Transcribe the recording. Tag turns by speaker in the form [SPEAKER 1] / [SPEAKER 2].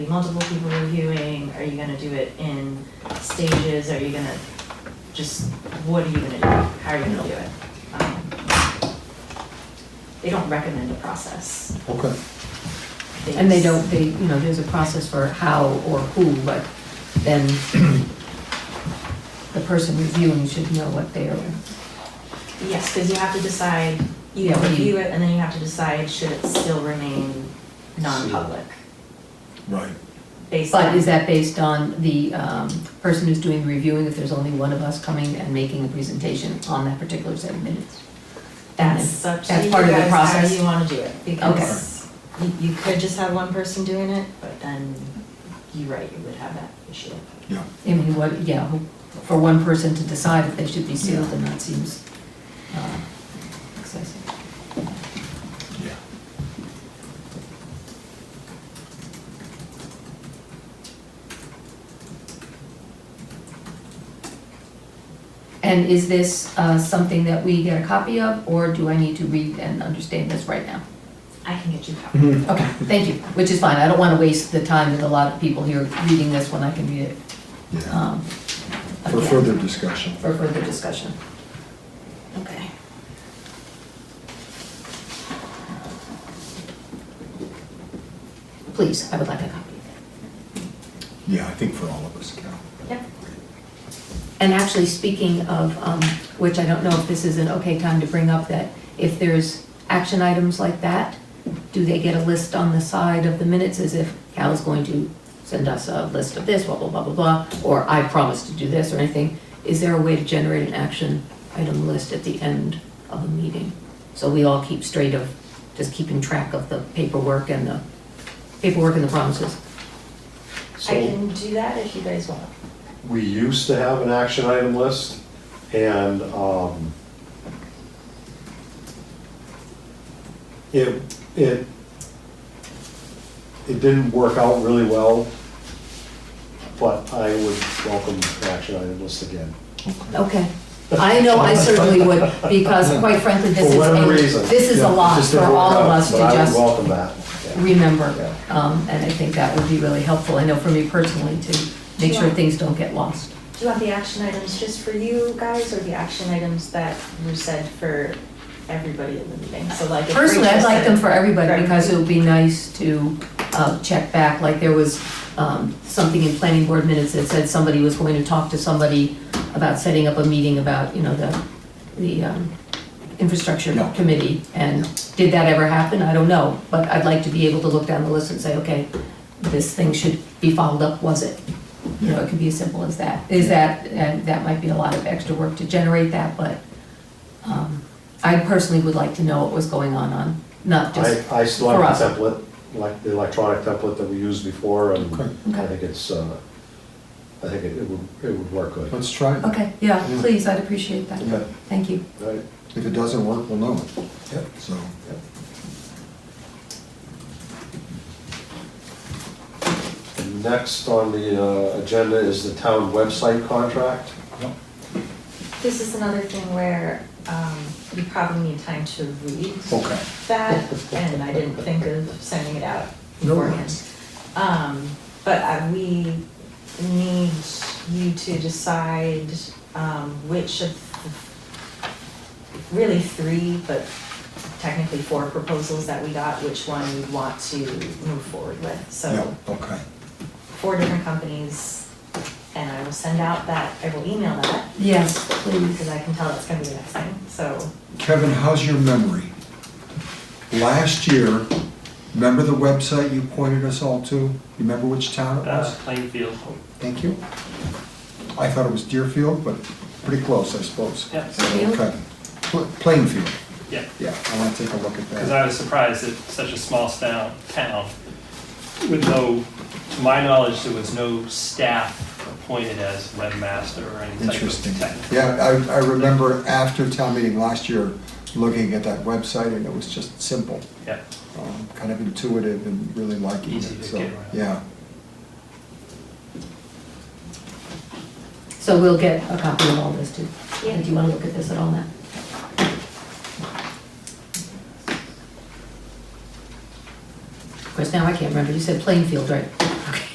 [SPEAKER 1] multiple people reviewing? Are you gonna do it in stages? Are you gonna, just, what are you gonna do? How are you gonna do it? Um, They don't recommend a process.
[SPEAKER 2] Okay.
[SPEAKER 3] And they
[SPEAKER 1] just-
[SPEAKER 3] don't, they, you know, there's a process for how or who, but then the person reviewing should know what they're,
[SPEAKER 1] Yes, because you have to decide, you
[SPEAKER 3] Yeah,
[SPEAKER 1] can
[SPEAKER 3] what do you-
[SPEAKER 1] review it, and then you have to decide should it still remain non-public?
[SPEAKER 2] Right.
[SPEAKER 1] Based
[SPEAKER 3] but
[SPEAKER 1] on,
[SPEAKER 3] is that based on the um, person who's doing the reviewing, if there's only one of us coming and making a presentation on that particular set of minutes?
[SPEAKER 1] that's up to
[SPEAKER 3] that's
[SPEAKER 1] you
[SPEAKER 3] part of the
[SPEAKER 1] guys how
[SPEAKER 3] process?
[SPEAKER 1] you want to do it, because you, you could just have one person doing it, but then you're right, you would have that issue.
[SPEAKER 2] Yeah.
[SPEAKER 3] I mean, what, yeah, who- for one person to decide if they should be sealed, and that seems uh, excessive.
[SPEAKER 2] Yeah.
[SPEAKER 3] And is this uh, something that we get a copy of, or do I need to read and understand this right now?
[SPEAKER 1] I can get you a copy.
[SPEAKER 2] Mhm.
[SPEAKER 3] Okay, thank you, which is fine, I don't want to waste the time with a lot of people here reading this when I can read it.
[SPEAKER 2] Yeah.
[SPEAKER 3] um,
[SPEAKER 2] For
[SPEAKER 3] again,
[SPEAKER 2] further discussion.
[SPEAKER 3] For further discussion. Okay. Please, I would like a copy.
[SPEAKER 2] Yeah, I think for all of us, Carol.
[SPEAKER 1] Yep.
[SPEAKER 3] And actually, speaking of, um, which I don't know if this is an okay time to bring up, that if there's action items like that, do they get a list on the side of the minutes as if Cal is going to send us a list of this, blah, blah, blah, blah, blah, or I promise to do this or anything? Is there a way to generate an action item list at the end of a meeting? So we all keep straight of, just keeping track of the paperwork and the, paperwork and the promises.
[SPEAKER 1] I
[SPEAKER 4] So
[SPEAKER 1] can do that if you guys want.
[SPEAKER 4] we used to have an action item list and um, it, it, it didn't work out really well, but I would welcome an action item list again.
[SPEAKER 3] Okay. I know I certainly would, because quite frankly, this is.
[SPEAKER 4] For whatever
[SPEAKER 3] a-
[SPEAKER 4] reason.
[SPEAKER 3] This is
[SPEAKER 4] Yeah,
[SPEAKER 3] a
[SPEAKER 4] it
[SPEAKER 3] lot
[SPEAKER 4] just
[SPEAKER 3] for
[SPEAKER 4] didn't work
[SPEAKER 3] all of
[SPEAKER 4] out,
[SPEAKER 3] us to
[SPEAKER 4] But I would
[SPEAKER 3] just
[SPEAKER 4] welcome that. yeah.
[SPEAKER 3] remember.
[SPEAKER 4] Yeah.
[SPEAKER 3] Um, and I think that would be really helpful, I know for me personally, to make sure things don't get lost.
[SPEAKER 1] Do you want the action items just for you guys, or the action items that were said for everybody in the meeting? So like. if we
[SPEAKER 3] Personally, I'd
[SPEAKER 1] just
[SPEAKER 3] like
[SPEAKER 1] said-
[SPEAKER 3] them for everybody,
[SPEAKER 1] Right.
[SPEAKER 3] because it would be nice to, uh, check back, like there was, um, something in planning board minutes that said somebody was going to talk to somebody about setting up a meeting about, you know, the, the, um, infrastructure
[SPEAKER 2] Yeah.
[SPEAKER 3] committee, and did that ever happen? I don't know, but I'd like to be able to look down the list and say, okay, this thing should be followed up, was it? You know, it could be as simple as that. Is that, and that might be a lot of extra work to generate that, but um, I personally would like to know what was going on on, not just,
[SPEAKER 4] I, I still
[SPEAKER 3] for
[SPEAKER 4] have
[SPEAKER 3] us.
[SPEAKER 4] the template, like the electronic template that we used before, and
[SPEAKER 2] Okay.
[SPEAKER 3] Okay.
[SPEAKER 4] I think it's, uh, I think it it would, it would work good.
[SPEAKER 2] Let's try it.
[SPEAKER 3] okay, yeah,
[SPEAKER 2] Yeah.
[SPEAKER 3] please, I'd appreciate that.
[SPEAKER 4] Okay.
[SPEAKER 3] Thank you.
[SPEAKER 4] Right?
[SPEAKER 2] If it doesn't work, we'll know.
[SPEAKER 4] Yep.
[SPEAKER 2] So,
[SPEAKER 4] Yep. Next on the uh, agenda is the town website contract.
[SPEAKER 1] This is another thing where um, you probably need time to read
[SPEAKER 2] okay.
[SPEAKER 1] that, and I didn't think of sending it out
[SPEAKER 2] No
[SPEAKER 1] beforehand.
[SPEAKER 2] worries.
[SPEAKER 1] Um, But uh, we need you to decide um, which of, the- really three, but technically four proposals that we got, which one you want to move forward with. So
[SPEAKER 2] Yeah, okay.
[SPEAKER 1] four different companies, and I will send out that, I will email that
[SPEAKER 3] Yes, please.
[SPEAKER 1] because I can tell that's gonna be the next thing, so.
[SPEAKER 2] Kevin, how's your memory? Last year, remember the website you pointed us all to? You Remember which town it
[SPEAKER 5] Uh,
[SPEAKER 2] was?
[SPEAKER 5] Plainfield.
[SPEAKER 2] Thank you. I thought it was Deerfield, but pretty close, I suppose.
[SPEAKER 5] Yeah.
[SPEAKER 2] Okay. Pl- Plainfield,
[SPEAKER 5] Yeah,
[SPEAKER 2] yeah, I want to take a look at
[SPEAKER 5] because
[SPEAKER 2] that.
[SPEAKER 5] I was surprised that such a small town, town, with no, to my knowledge, there was no staff appointed as webmaster or any type
[SPEAKER 2] Interesting.
[SPEAKER 5] of tech.
[SPEAKER 2] Yeah, I, I remember after town meeting last year, looking at that website, and it was just simple,
[SPEAKER 5] Yeah,
[SPEAKER 2] um, kind of intuitive and really liking it,
[SPEAKER 5] Easy to
[SPEAKER 2] so,
[SPEAKER 5] get around.
[SPEAKER 2] yeah.
[SPEAKER 3] So we'll get a copy of all this too.
[SPEAKER 1] Yeah.
[SPEAKER 3] Do you want to look at this at all now? Of course, now I can't remember, you said Plainfield, right?